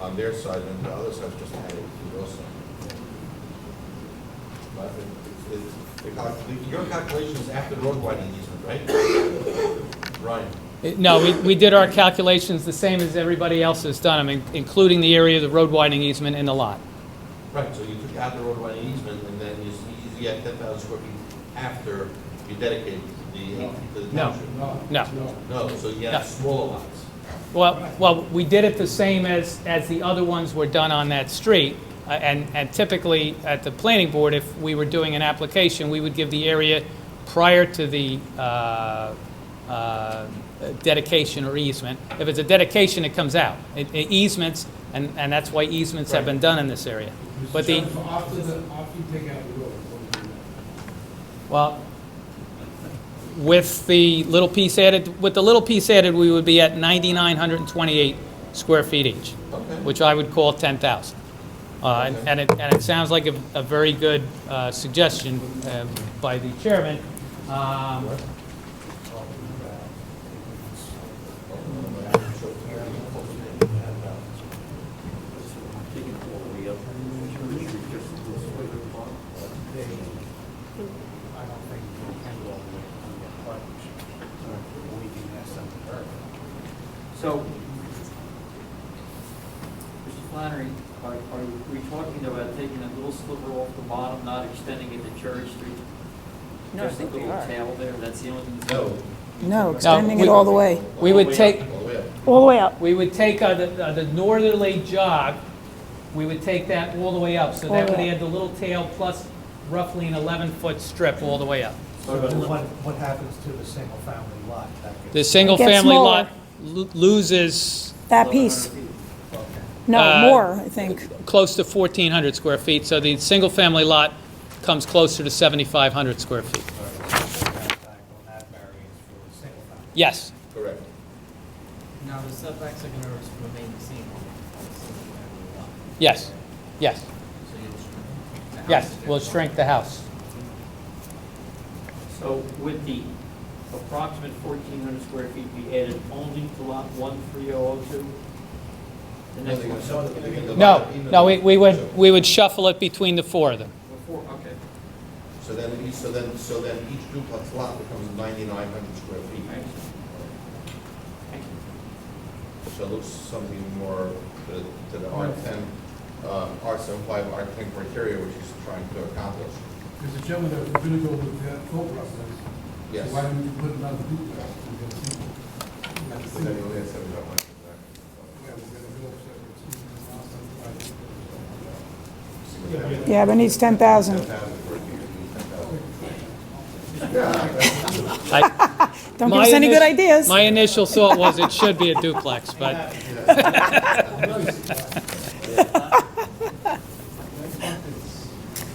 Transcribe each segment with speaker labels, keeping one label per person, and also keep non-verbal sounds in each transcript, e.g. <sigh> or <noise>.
Speaker 1: on their side, and the other side's just added to your side. But it- it- the calc- the- Your calculation is after the road widening easement, right? Ryan?
Speaker 2: It- No, we, we did our calculations the same as everybody else has done, I mean, including the area of the road widening easement and the lot.
Speaker 1: Right, so you took out the road widening easement, and then you s- you get ten thousand square feet after you dedicate the, uh, the
Speaker 2: No.
Speaker 1: township.
Speaker 2: No.
Speaker 1: No, so you have
Speaker 2: No.
Speaker 1: smaller lots.
Speaker 2: Well, well, we did it the same as, as the other ones were done on that street. Uh, And, and typically, at the planning board, if we were doing an application, we would give the area prior to the uh, uh, dedication or easement. If it's a dedication, it comes out. It- it Easements, and, and that's why easements have been done in this area. But the,
Speaker 3: After the, after you take out the road, what do you do?
Speaker 2: Well, with the little piece added, with the little piece added, we would be at 9,928 square feet each,
Speaker 1: Okay.
Speaker 2: which I would call 10,000. Uh, And
Speaker 1: Okay.
Speaker 2: and it, and it sounds like a a very good uh, suggestion uh, by the chairman. Um,
Speaker 4: I don't think you can handle all the way on the clutch. So we can ask them to verify.
Speaker 5: So, Mr. Flannery, are, are we talking about taking a little sliver off the bottom, not extending it to Cherry Street?
Speaker 6: No, I think we are.
Speaker 5: Just a little tail there, that's the only thing.
Speaker 1: No. Oh,
Speaker 6: No, extending
Speaker 2: we-
Speaker 6: it all the way,
Speaker 2: We would take,
Speaker 1: All the way up.
Speaker 6: all the way up.
Speaker 2: we would take uh, the uh, the northerly jog, we would take that all the way up. So
Speaker 6: All
Speaker 2: that
Speaker 6: the
Speaker 2: would
Speaker 6: way up.
Speaker 2: add the little tail plus roughly an 11-foot strip all the way up.
Speaker 4: So what, what happens to the single-family lot? That gets-
Speaker 2: The single-family lot lo- loses
Speaker 6: That piece,
Speaker 5: 1,100 feet.
Speaker 6: no,
Speaker 2: Uh,
Speaker 6: more, I think.
Speaker 2: close to 1,400 square feet, so the single-family lot comes closer to 7,500 square feet.
Speaker 4: Or that back on that variance for the single-family.
Speaker 2: Yes,
Speaker 1: Correct.
Speaker 7: Now, the setbacks are gonna remain the same on the single-family lot.
Speaker 2: yes, yes,
Speaker 7: So you'll shrink the house
Speaker 2: yes,
Speaker 7: down.
Speaker 2: we'll shrink the house.
Speaker 5: So with the approximate fourteen hundred square feet be added only to lot one three oh oh two? The next one, so
Speaker 2: No, no, we we would, we would shuffle it between the four of them.
Speaker 5: before, okay,
Speaker 1: So then, each- so then, so then each duplex lot becomes ninety-nine hundred square feet.
Speaker 5: thanks. Thank you.
Speaker 1: So it looks something more to to the R ten, uh, R seven five, R ten criteria, which he's trying to accomplish.
Speaker 3: Mr. Chairman, that we're gonna go with that thought process.
Speaker 1: Yes.
Speaker 3: So why don't you put another duplex? We're gonna see. We're gonna
Speaker 1: So
Speaker 3: see.
Speaker 1: then you only have 7,500
Speaker 3: Yeah,
Speaker 1: exactly.
Speaker 3: we're gonna go upstairs and see. And I'll send it back.
Speaker 6: Yeah, but it needs 10,000.
Speaker 1: 10,000 square feet, it'd be 10,000.
Speaker 6: <laughs>
Speaker 2: I-
Speaker 6: Don't give
Speaker 2: my
Speaker 6: us any
Speaker 2: init-
Speaker 6: good ideas.
Speaker 2: My initial thought was it should be a duplex, but <laughs> so,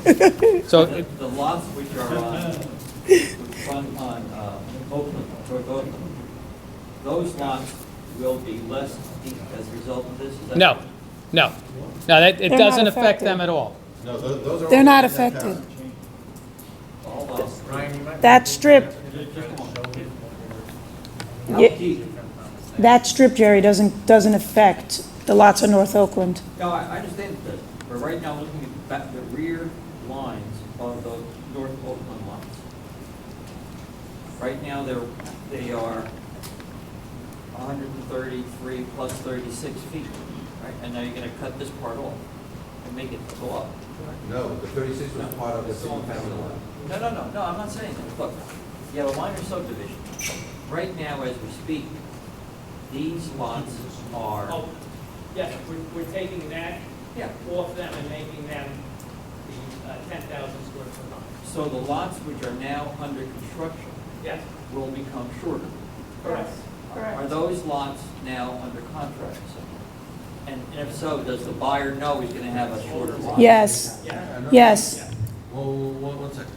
Speaker 5: The the lots which are on, which front on uh, Oakland, toward Oakland, those lots will be less deep as a result of this? is that-
Speaker 2: no, no, no, that- it
Speaker 6: They're not
Speaker 2: doesn't affect
Speaker 6: affected.
Speaker 2: them at all.
Speaker 1: No, tho- those are.
Speaker 6: They're
Speaker 1: all
Speaker 6: not
Speaker 1: 10,000.
Speaker 6: affected.
Speaker 5: All uh, lots,
Speaker 6: That strip,
Speaker 5: just just come on. How
Speaker 6: Ye-
Speaker 5: deep?
Speaker 6: that strip, Jerry, doesn't, doesn't affect the lots of North Oakland.
Speaker 5: No, I I understand that, but right now, looking at the back- the rear lines of the North Oakland lots. Right now, they're, they are 133 plus 36 feet, right? And now you're going to cut this part off and make it go up.
Speaker 1: No, the thirty-six was part of the single family lot.
Speaker 5: No, no, no, no, I'm not saying that. Look, you have a minor subdivision. Right now, as we speak, these lots are,
Speaker 2: yes, we're taking that
Speaker 5: yeah,
Speaker 2: off them and making them the 10,000 square foot lot.
Speaker 5: so the lots which are now under construction
Speaker 2: Yes,
Speaker 5: will become shorter.
Speaker 2: correct.
Speaker 5: Are those lots now under contract somewhere? And if so, does the buyer know he's gonna have a shorter lot?
Speaker 6: Yes, yes.
Speaker 1: Whoa, whoa, whoa, one second.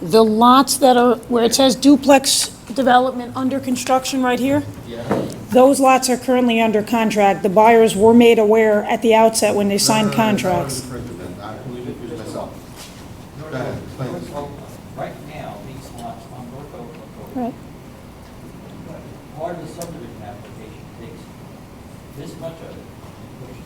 Speaker 6: The lots that are, where it says duplex development under construction right here,
Speaker 1: Yeah.
Speaker 6: those lots are currently under contract. The buyers were made aware at the outset when they signed
Speaker 1: No, no, no, no,
Speaker 6: contracts.
Speaker 1: no,